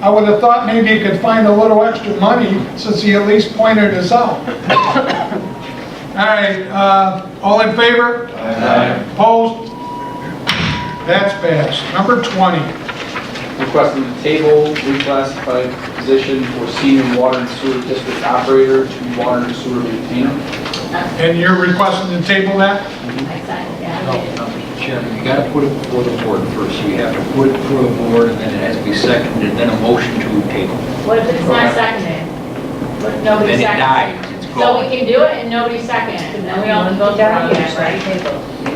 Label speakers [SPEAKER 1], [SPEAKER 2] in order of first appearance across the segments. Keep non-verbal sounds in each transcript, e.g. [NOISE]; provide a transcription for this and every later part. [SPEAKER 1] I would have thought maybe you could find a little extra money since he at least pointed us out. [LAUGHS] All right, uh, all in favor? Opposed? That's passed. Number 20.
[SPEAKER 2] Requesting the table reclassified position for senior water and sewer district operator to water and sewer maintainer.
[SPEAKER 1] And you're requesting to table that?
[SPEAKER 3] I signed that.
[SPEAKER 4] No, Mr. Chairman, you gotta put it before the board first. You have to put it before the board, and then it has to be seconded, and then a motion to table.
[SPEAKER 3] What if it's not seconded? What if nobody
[SPEAKER 4] Then it
[SPEAKER 3] seconded?
[SPEAKER 4] dies, it's
[SPEAKER 3] So we
[SPEAKER 4] gone.
[SPEAKER 3] can do it and nobody seconded, and then we all can go down again, right?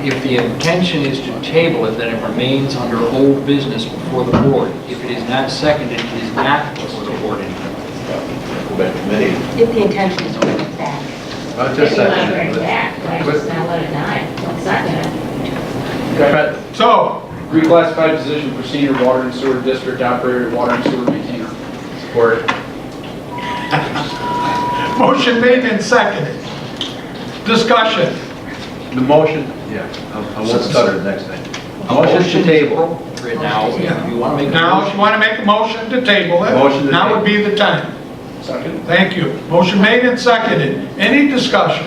[SPEAKER 4] If the intention is to table it, then it remains under old business before the board. If it is not seconded, it is not before the board anymore.
[SPEAKER 5] Go back to committee.
[SPEAKER 6] If the intention is to bring it back.
[SPEAKER 5] Not
[SPEAKER 3] Maybe
[SPEAKER 5] just
[SPEAKER 3] you want to bring it
[SPEAKER 5] second.
[SPEAKER 3] back, right? Just not let it die, don't second it.
[SPEAKER 5] Okay.
[SPEAKER 1] So,
[SPEAKER 2] Reclassified position for senior water and sewer district operator, water and sewer maintainer.
[SPEAKER 5] Support.
[SPEAKER 1] motion made and seconded. Discussion.
[SPEAKER 5] The motion, yeah, I- I won't stutter next time. Motion to table.
[SPEAKER 4] Right now, if you wanna make a
[SPEAKER 1] Now, if you
[SPEAKER 4] motion,
[SPEAKER 1] want to make a motion to table it,
[SPEAKER 5] Motion to
[SPEAKER 1] now would
[SPEAKER 5] table.
[SPEAKER 1] be the time.
[SPEAKER 2] Second.
[SPEAKER 1] Thank you. Motion made and seconded. Any discussion?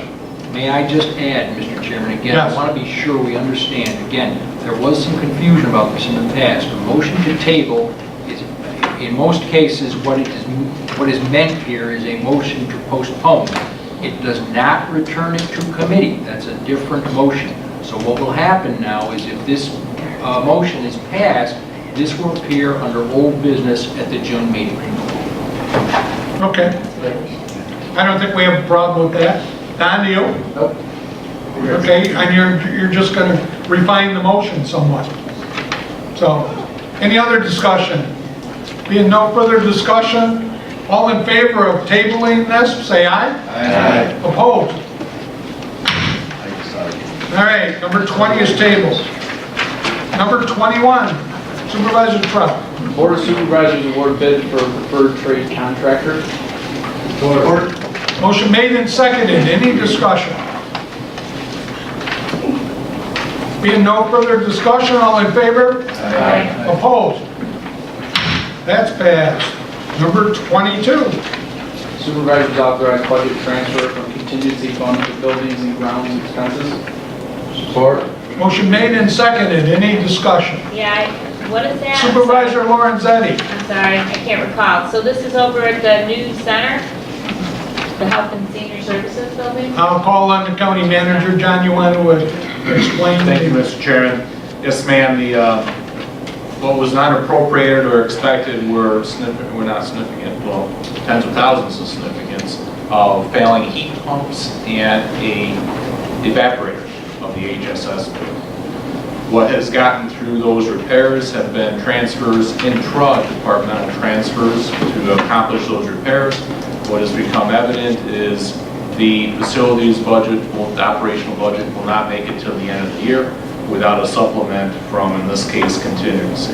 [SPEAKER 4] may I just add, Mr. Chairman, again,
[SPEAKER 1] Yes.
[SPEAKER 4] I wanna be sure we understand, again, there was some confusion about this in the past. A motion to table is, in most cases, what it is, what is meant here is a motion to postpone. It does not return it to committee. That's a different motion. So what will happen now is if this uh, motion is passed, this will appear under old business at the June meeting.
[SPEAKER 1] Okay. I don't think we have a problem with that. Don, do you?
[SPEAKER 2] Nope.
[SPEAKER 1] Okay, and you're, you're just going to refine the motion somewhat. So, any other discussion? Being no further discussion, all in favor of tabling this, say aye.
[SPEAKER 5] Aye.
[SPEAKER 1] Opposed?
[SPEAKER 5] I decided.
[SPEAKER 1] All right, number 20 is tabled. Number 21, Supervisor Trout.
[SPEAKER 2] Board of Supervisors award bid for preferred trade contractor.
[SPEAKER 1] Motion made and seconded, any discussion? Being no further discussion, all in favor?
[SPEAKER 3] Aye.
[SPEAKER 1] Opposed? That's passed. Number 22,
[SPEAKER 2] Supervisors authorize budget transfer from contingency fund to buildings and grounds expenses.
[SPEAKER 5] Support.
[SPEAKER 1] motion made and seconded, any discussion?
[SPEAKER 3] Yeah, I- what is that?
[SPEAKER 1] Supervisor Lorenzetti,
[SPEAKER 3] I'm sorry, I can't recall. So this is over at the new center, the Health and Senior Services Building?
[SPEAKER 1] I'll call on the county manager, John, you want to explain?
[SPEAKER 7] Thank you, Mr. Chairman. Yes, ma'am, the, uh, what was not appropriated or expected were significant, were not significant, well, tens of thousands of significance of failing heat pumps and a evaporator of the HSS. What has gotten through those repairs have been transfers, intra-departmental transfers to accomplish those repairs. What has become evident is the facilities budget, will- the operational budget will not make it till the end of the year without a supplement from, in this case, contingency.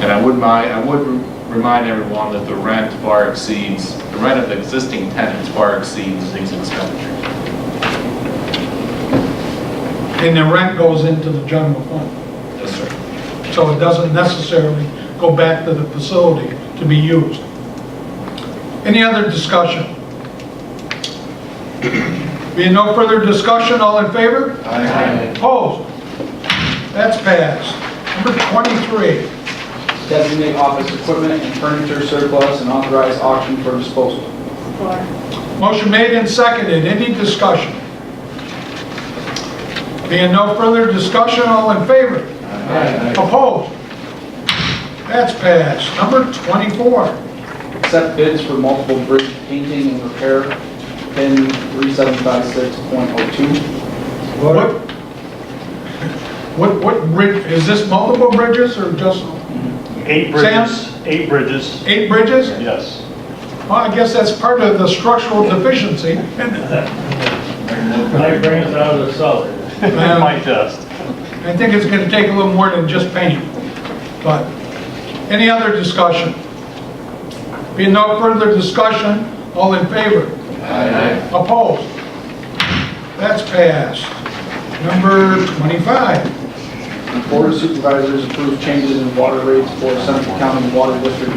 [SPEAKER 7] And I would mind, I would remind everyone that the rent far exceeds, the rent of the existing tenants far exceeds these expenditures.
[SPEAKER 1] And the rent goes into the general fund,
[SPEAKER 7] Yes, sir.
[SPEAKER 1] so it doesn't necessarily go back to the facility to be used. Any other discussion? Being no further discussion, all in favor?
[SPEAKER 5] Aye.
[SPEAKER 1] Opposed? That's passed. Number 23.
[SPEAKER 2] Designate office equipment and furniture surplus and authorize auction for disposal.
[SPEAKER 3] Support.
[SPEAKER 1] Motion made and seconded, any discussion? Being no further discussion, all in favor? Opposed? That's passed. Number 24,
[SPEAKER 2] Accept bids for multiple bridge painting and repair, pin 3756.02.
[SPEAKER 1] what, what, what bridge, is this multiple bridges or just
[SPEAKER 8] Eight bridges, eight bridges,
[SPEAKER 1] eight bridges?
[SPEAKER 8] yes.
[SPEAKER 1] Well, I guess that's part of the structural deficiency.
[SPEAKER 8] I bring it out of the cellar, [LAUGHS]
[SPEAKER 1] Um,
[SPEAKER 8] my test.
[SPEAKER 1] I think it's gonna take a little more than just paint, but, any other discussion? Being no further discussion, all in favor?
[SPEAKER 5] Aye.
[SPEAKER 1] Opposed? That's passed. Number 25.
[SPEAKER 2] Board of Supervisors approve changes in water rates for Central County Water District